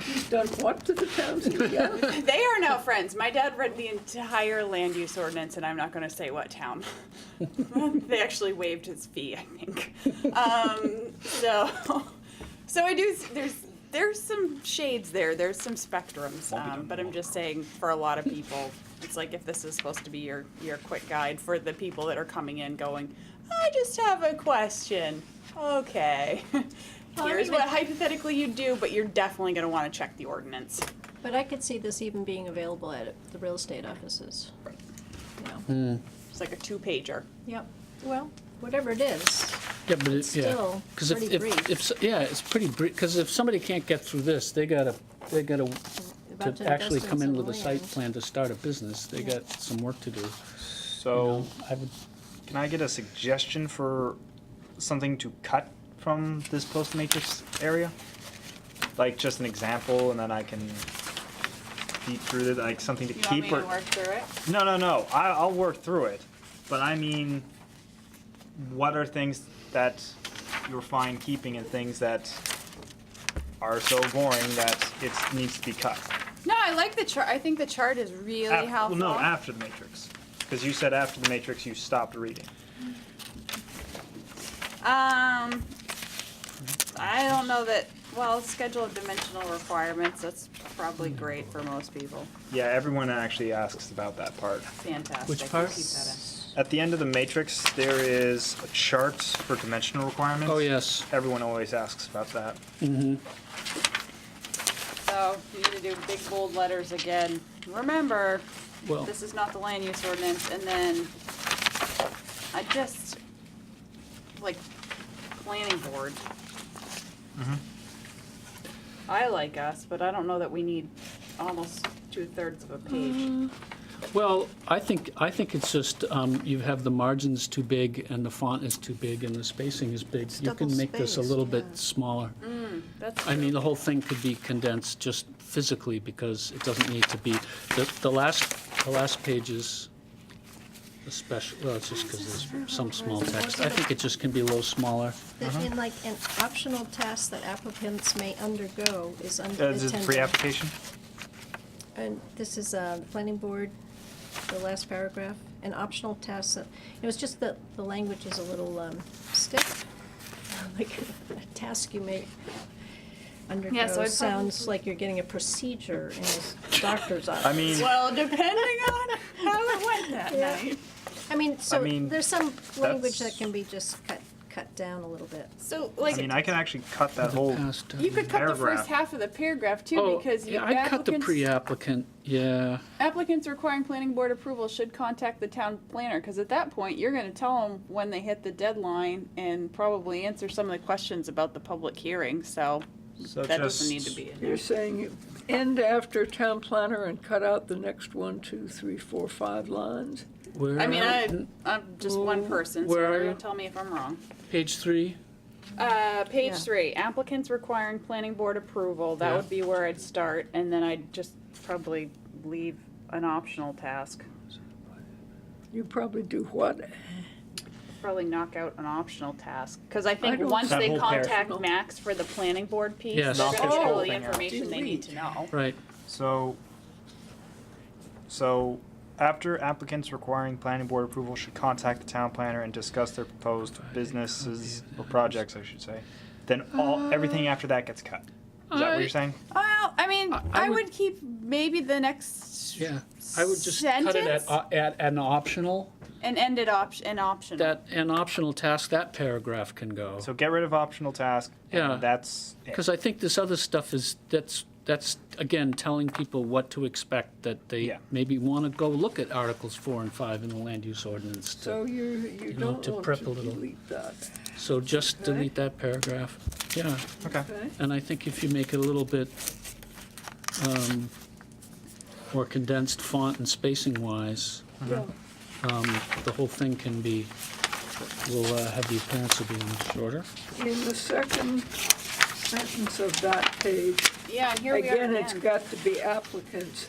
He's done what to the town? CPO? They are now friends. My dad read the entire land use ordinance, and I'm not going to say what town. they actually waived his fee, I think. Um, so, so I do. There's there's some shades there. There's some spectrums. Um, but I'm just saying, for a lot of people, it's like if this is supposed to be your your quick guide for the people that are coming in, going, I just have a question. Okay. Well, I Here's mean, what it- hypothetically you do, but you're definitely going to want to check the ordinance. But I could see this even being available at the real estate offices. You know. It's like a two pager. Yep, well, whatever it is, Yeah, but it's, yeah. still 'Cause if- pretty if- brief. if s- Yeah, it's pretty brief, because if somebody can't get through this, they gotta, they gotta, about to to invest actually in come in some with a site land. plan to start a business, they got some work to do. So, I would, can I get a suggestion for something to cut from this post matrix area? Like just an example, and then I can beat through it, like something to You want me keep to or. work through it? No, no, no, I, I'll work through it, but I mean, what are things that you're fine keeping and things that are so boring that it needs to be cut? No, I like the chart. I think the chart is really Af- well, helpful. No, after the matrix, because you said after the matrix, you stopped reading. um, I don't know that. Well, schedule of dimensional requirements. That's probably great for most people. Yeah, everyone actually asks about that part. Fantastic. Which part? Keep that At the end of the matrix, there is a chart for dimensional requirements. oh, yes. Everyone always asks about that. in. So you need to do big bold letters again. Remember, Well, this is not the land use ordinance. And then I just like planning board. Mm-hmm. I like us, but I don't know that we need almost two thirds of a page. well, I think, I think it's just, um, you have the margins too big and the font is too big and the spacing is big. You can make this a double-spaced, little bit smaller. That's I mean, the whole thing could be condensed just physically because it doesn't need to be, the, the last, the last page is especially, well, it's just because there's some small text. I think it just can be a little smaller. That in like, an optional task that applicants may undergo is Uh, is unattended. it pre-application? And this is, uh, the planning board, the last paragraph, an optional task that, it was just that the language is a little, um, stiff. Like, a task you may undergo I'd sounds like you're getting a procedure in a doctor's office. I mean, Well, depending on how it went that Yeah. night. I mean, so mean, there's some language that that's- can be just cut, cut down a little bit. So I mean, I like, can actually cut that whole. Past, uh, you could cut the first Paragraph. half of the paragraph too, Oh, because you yeah, I cut the applicants, pre-applicant, yeah. applicants requiring planning board approval should contact the town planner. Cause at that point, you're gonna tell them when they hit the deadline and probably answer some of the questions about the public hearing, so So that doesn't just- need to be in. You're saying end after town planner and cut out the next one, two, three, four, five lines? I mean, I, I'm just one person, so Where you're are gonna you? tell me if I'm wrong. Page three, Uh, page Yeah. three, applicants requiring planning board approval, that Yeah. would be where I'd start, and then I'd just probably leave an optional task. You probably do what? Probably knock out an optional task, cause I think don't- once That they whole paragraph. contact Max for the planning board piece, they're Yes. gonna Knock get this whole all the thing out. information they need to know. right. So, so after applicants requiring planning board approval should contact the town planner and discuss their proposed businesses or projects, I should say. Then all, everything after that gets cut. Is that what I- you're saying? Well, I mean, I- I I would- would keep maybe the next Yeah, I would just cut it at, Sentence? uh, at an optional, and end it op, an optional. that, an optional task, that paragraph can go. So get rid of optional task. and Yeah. That's it. Because I think this other stuff is, that's, that's, again, telling people what to expect, that they Yeah. maybe want to go look at Articles 4 and 5 in the land use ordinance. to- So you, you know, don't to want prep to a little. delete that, So just Okay. delete that paragraph. Yeah, Okay. okay? and I think if you make it a little bit um, more condensed font and spacing-wise, Yeah. um, the whole thing can be, will uh, have the appearance of being shorter. Mm-hmm. In the second sentence of that page, Yeah, and here we are again, it's again. got to be applicants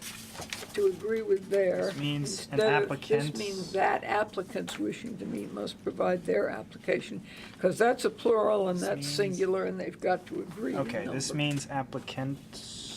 to agree with there. This means an instead of- This applicant's- means that applicants wishing to meet must provide their application, because that's a plural and This that's means- singular, and they've got to agree. Okay, this means means applicants.